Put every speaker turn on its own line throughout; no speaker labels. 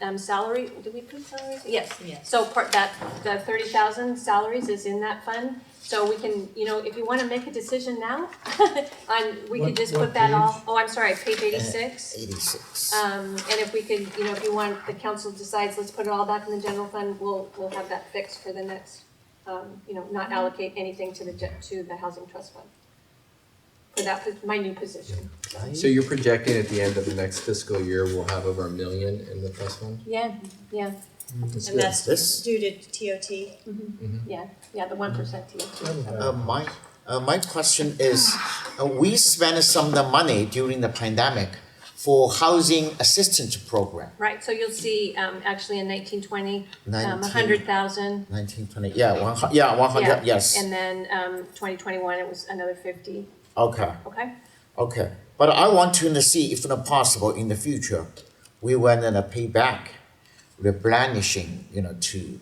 um, salary, did we put salaries? Yes.
Yes.
So part, that, the thirty thousand salaries is in that fund, so we can, you know, if you wanna make a decision now, on, we could
What-
just
what
put that off,
page?
oh, I'm sorry, page eighty-six.
Eighty-six.
Um, and if we could, you know, if you want, the council decides, let's put it all back in the general fund, we'll, we'll have that fixed for the next, um, you know, not allocate anything to the, ge- to the housing trust fund. For that, pos- my new position, so.
So you're projecting at the end of the next fiscal year, we'll have over a million in the trust fund?
Yeah, yeah,
That's
And
good.
that's
This,
due to TOT.
yeah, the one percent TOT.
uh, my, uh, my question is, uh, we spent some of the money during the pandemic for housing assistance program,
Right, so you'll see, um, actually in nineteen twenty, um, a
nineteen,
hundred thousand.
nineteen, twenty, yeah, one hu- yeah, one hundred, yes,
And then, um, twenty twenty-one, it was another fifty,
okay,
okay?
okay. But I want to see if not possible in the future, we want to pay back replenishing, you know, to,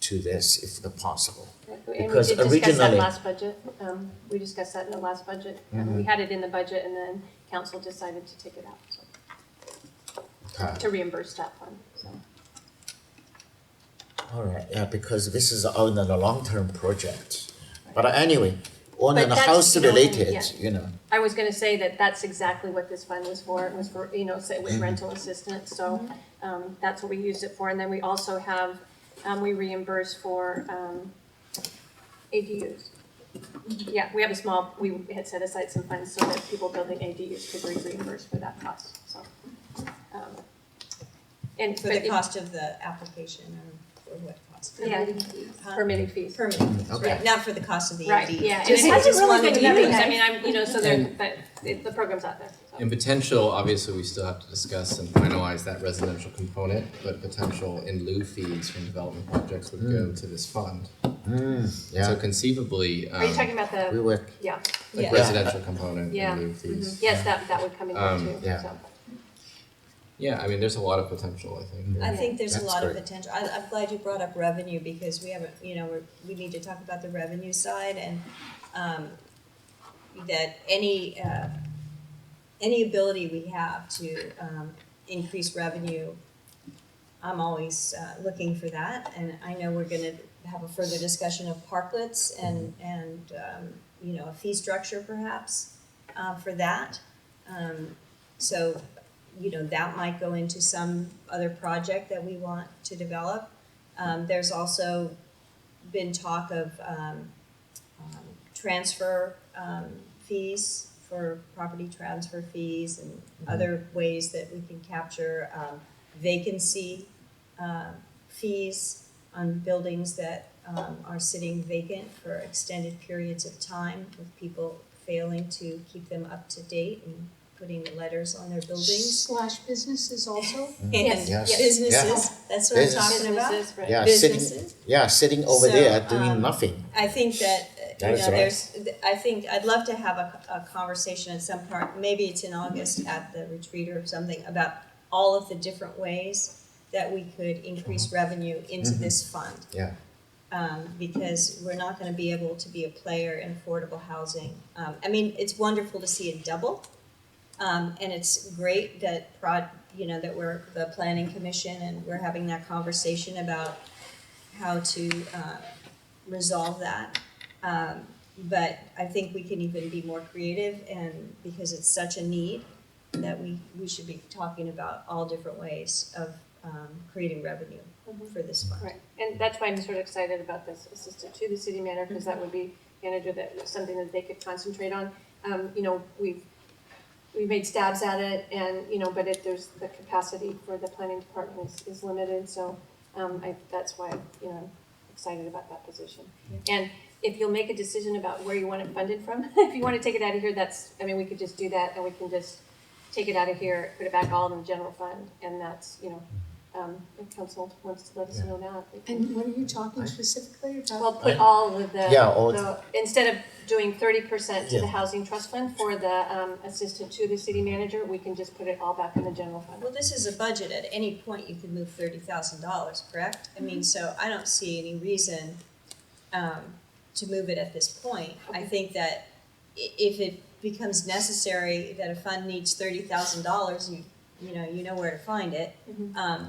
to this if not possible. Because
And we did discuss that
originally-
last budget, um, we discussed that in the last budget, um,
Mm-hmm.
we had it in the budget and then council decided to take it out, so,
Okay.
to reimburse that fund, so.
All right, yeah, because this is on a long-term project. But anyway, on
But
a
that's-
house
you know,
related,
yeah.
you know,
I was gonna say that that's exactly what this fund was for, it was for, you know, say
Mm-hmm.
with rental assistance, so,
Mm-hmm.
um, that's what we used it for, and then we also have, um, we reimburse for, um, ADUs.
Mm-hmm.
Yeah, we have a small, we had set aside some funds so that people building ADUs could be reimbursed for that cost, so. um, And,
For
but
the
it,
cost of the application or, or what cost?
yeah,
Huh?
permitting fees,
Permitting,
okay.
right, not for the cost of the AD.
right, yeah, and it
Just-
hasn't
just
really
wanted
been
to be-
used, I mean, I'm, you know, so there,
And-
but it, the program's out there, so.
And potential, obviously, we still have to discuss and finalize that residential component, but potential in lieu fees from development projects would go to this fund. So
Mm, yeah,
conceivably,
Are you talking
um,
about
we
the,
were,
yeah,
like
Yeah.
residential component
Yeah.
in lieu fees.
Mm-hmm. yes, that, that would come in
Um,
here too, so.
yeah.
Yeah, I mean, there's a lot of potential, I think.
I think there's a
That's
lot of
great.
potential. I, I'm glad you brought up revenue because we haven't, you know, we're, we need to talk about the revenue side and, um, that any, uh, any ability we have to, um, increase revenue, I'm always, uh, looking for that. And I know we're gonna have a further discussion of parklets and,
Mm-hmm.
and, um, you know, a fee structure perhaps, uh, for that. Um, so you know, that might go into some other project that we want to develop. Um, there's also been talk of, um, um, transfer, um, fees for property transfer fees and other ways that we can capture, um, vacancy, uh, fees on buildings that, um, are sitting vacant for extended periods of time with people failing to keep them up to date and putting letters on their buildings.
Slash businesses also?
Yes,
yes, yeah.
Businesses, that's what I'm talking about.
Businesses, right.
yeah, sitting,
Businesses.
yeah, sitting over
So,
there doing
um,
nothing.
I think that, uh,
That
you
is
know,
right.
there's, th- I think, I'd love to have a, a conversation at some part, maybe it's in August at the retreat or something, about all of the different ways that we could increase revenue into this fund.
Yeah.
Um, because we're not gonna be able to be a player in affordable housing. Um, I mean, it's wonderful to see it double. Um, and it's great that prod, you know, that we're the planning commission and we're having that conversation about how to, uh, resolve that. Um, but I think we can even be more creative and because it's such a need that we, we should be talking about all different ways of, um, creating revenue for this fund.
Right, and that's why I'm sort of excited about this assistant to the city manager, because that would be manager that, something that they could concentrate on. Um, you know, we've, we made stabs at it and, you know, but if there's, the capacity for the planning department is, is limited, so, um, I, that's why, you know, I'm excited about that position. And if you'll make a decision about where you want it funded from, if you wanna take it out of here, that's, I mean, we could just do that and we can just take it out of here, put it back all in the general fund, and that's, you know, um, if council wants to let us know that. we can-
And what are you talking specifically
Well,
about?
put all of the.
Yeah, all-
the- Instead of doing thirty percent to the
Yeah.
housing trust fund for the, um, assistant to the city manager, we can just put it all back in the general fund.
Well, this is a budget, at any point you could move thirty thousand dollars, correct? I mean, so I don't see any reason um to move it at this point. I think that i- if it becomes necessary that a fund needs thirty thousand dollars, you you know, you know where to find it.
Mhm.
Um